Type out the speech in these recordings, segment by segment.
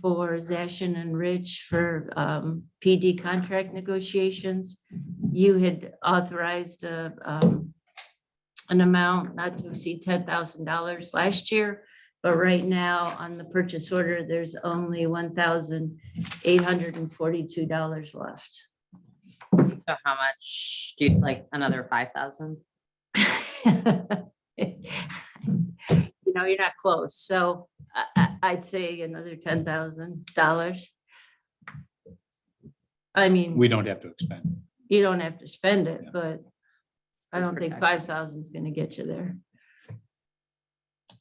for Zashin and Rich for um, PD contract negotiations. You had authorized a, um, an amount not to exceed ten thousand dollars last year. But right now, on the purchase order, there's only one thousand eight hundred and forty-two dollars left. So how much do you, like, another five thousand? You know, you're not close, so I, I, I'd say another ten thousand dollars. I mean. We don't have to expend. you don't have to spend it, Yeah. but I It's don't think five protection. thousand is gonna get you there.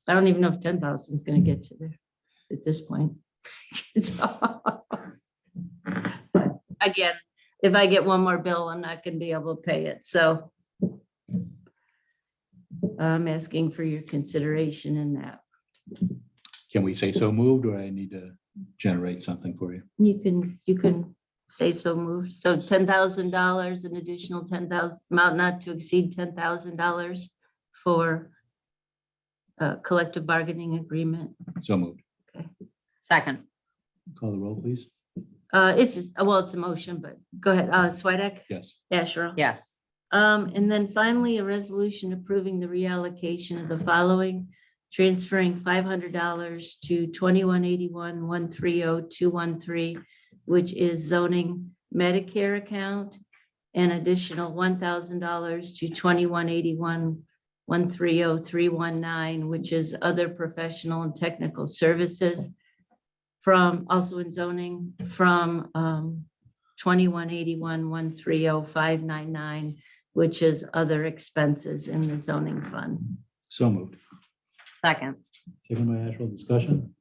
I don't even know if ten thousand is gonna get you there at this point. So- But Again, if I get one more bill, I'm not gonna be able to pay it, so I'm asking for your consideration in that. Can we say so moved or I need to generate something for you? You can, you can say so moved. So ten thousand dollars, an additional ten thousand, amount not to exceed ten thousand dollars for uh, collective bargaining agreement. So moved. Second, Call the roll, please. Uh, it's just, well, it's a motion, but go ahead. Uh, Swedek, Yes. Asherle. yes, Um, and then finally, a resolution approving the reallocation of the following, transferring five hundred dollars to twenty-one eighty-one, one three oh, two one three, which is zoning Medicare account, an additional one thousand dollars to twenty-one eighty-one, one three oh, three one nine, which is other professional and technical services from, also in zoning, from, um, twenty-one eighty-one, one three oh, five nine nine, which is other expenses in the zoning fund. So moved. second, Second by Asherle, discussion?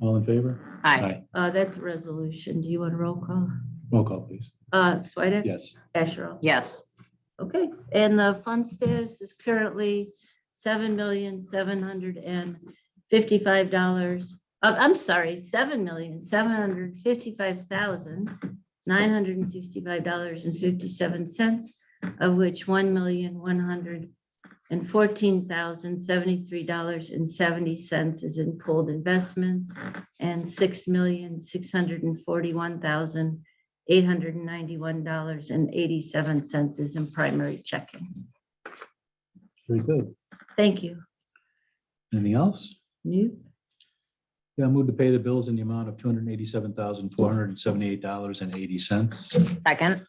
All in favor? aye, Uh, that's a resolution. Do you want a roll call? Roll call, please. Uh, Swedek? Yes. Asherle? yes, Okay, and the fund status is currently seven million, seven hundred and fifty-five dollars. Uh, I'm sorry, seven million, seven hundred fifty-five thousand, nine hundred and sixty-five dollars and fifty-seven cents, of which one million, one hundred and fourteen thousand, seventy-three dollars and seventy cents is in pooled investments, and six million, six hundred and forty-one thousand, eight hundred and ninety-one dollars and eighty-seven cents is in primary checking. Very good. Thank you. Anything else? New, Yeah, I move to pay the bills in the amount of two hundred and eighty-seven thousand, four hundred and seventy-eight dollars and eighty cents. second,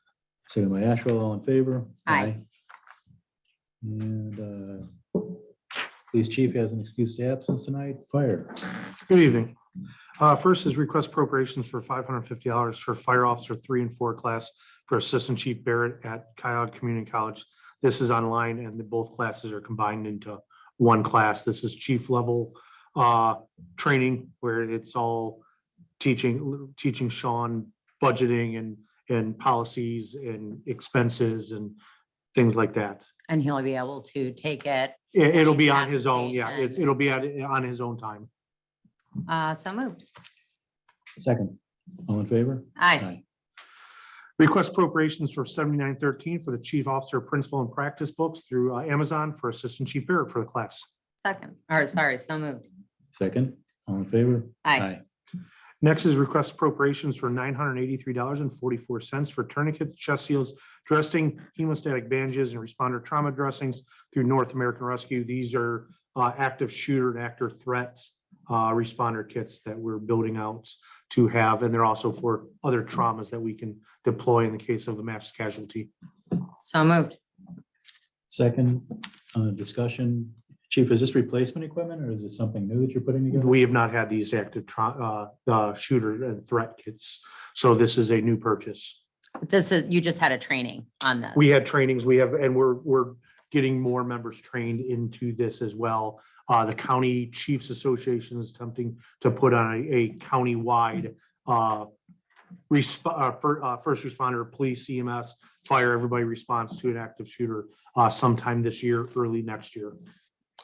Second by Asherle, all in favor? Aye. And uh, police chief has an excuse to absence tonight. Fire. Good evening. Uh, First is request appropriations for five hundred fifty dollars for fire officer three and four class for Assistant Chief Barrett at Coyote Community College. This is online and the both classes are combined into one class. This is chief level uh, training where it's all teaching, teaching Sean budgeting and, and policies and expenses and things like that. and he'll be able to take it, It- It'll be His on his own, yeah, it's- application. it'll be at- on his own time. uh, so moved, Second. All in favor? aye, Request appropriations for seventy-nine thirteen for the chief officer principal and practice books through uh, Amazon for Assistant Chief Barrett for the class. second, or sorry, so moved, Second. All in favor? aye, Next is request appropriations for nine hundred eighty-three dollars and forty-four cents for tourniquets, chest seals, dressing, hemostatic bandages, and responder trauma dressings through North American Rescue. These are uh, active shooter and actor threats uh, responder kits that we're building out to have, and they're also for other traumas that we can deploy in the case of a mass casualty. so moved, Second, uh, discussion. Chief, is this replacement equipment or is it something new that you're putting together? We have not had these active tra- uh, uh, shooter and threat kits. So this is a new purchase. this is, you just had a training on this, We had trainings, we have, and we're, we're getting more members trained into this as well. Uh, the County Chiefs Association is attempting to put on a, a countywide, uh, resp- uh, fir- uh, first responder, police, EMS, fire, everybody responds to an active shooter, uh, sometime this year, early next year.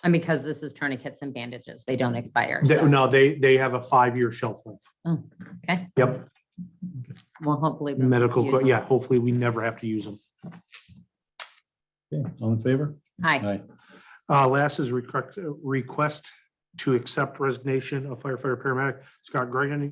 and because this is tourniquets and bandages, they don't expire. They- so No, they, they have a five-year shelf life. Oh, okay. Yep, Well, hopefully. we'll medical, use co- them. yeah, hopefully we never have to use them. Okay, All in favor? Aye, Uh, last is request, request to accept resignation of firefighter paramedic Scott Gregan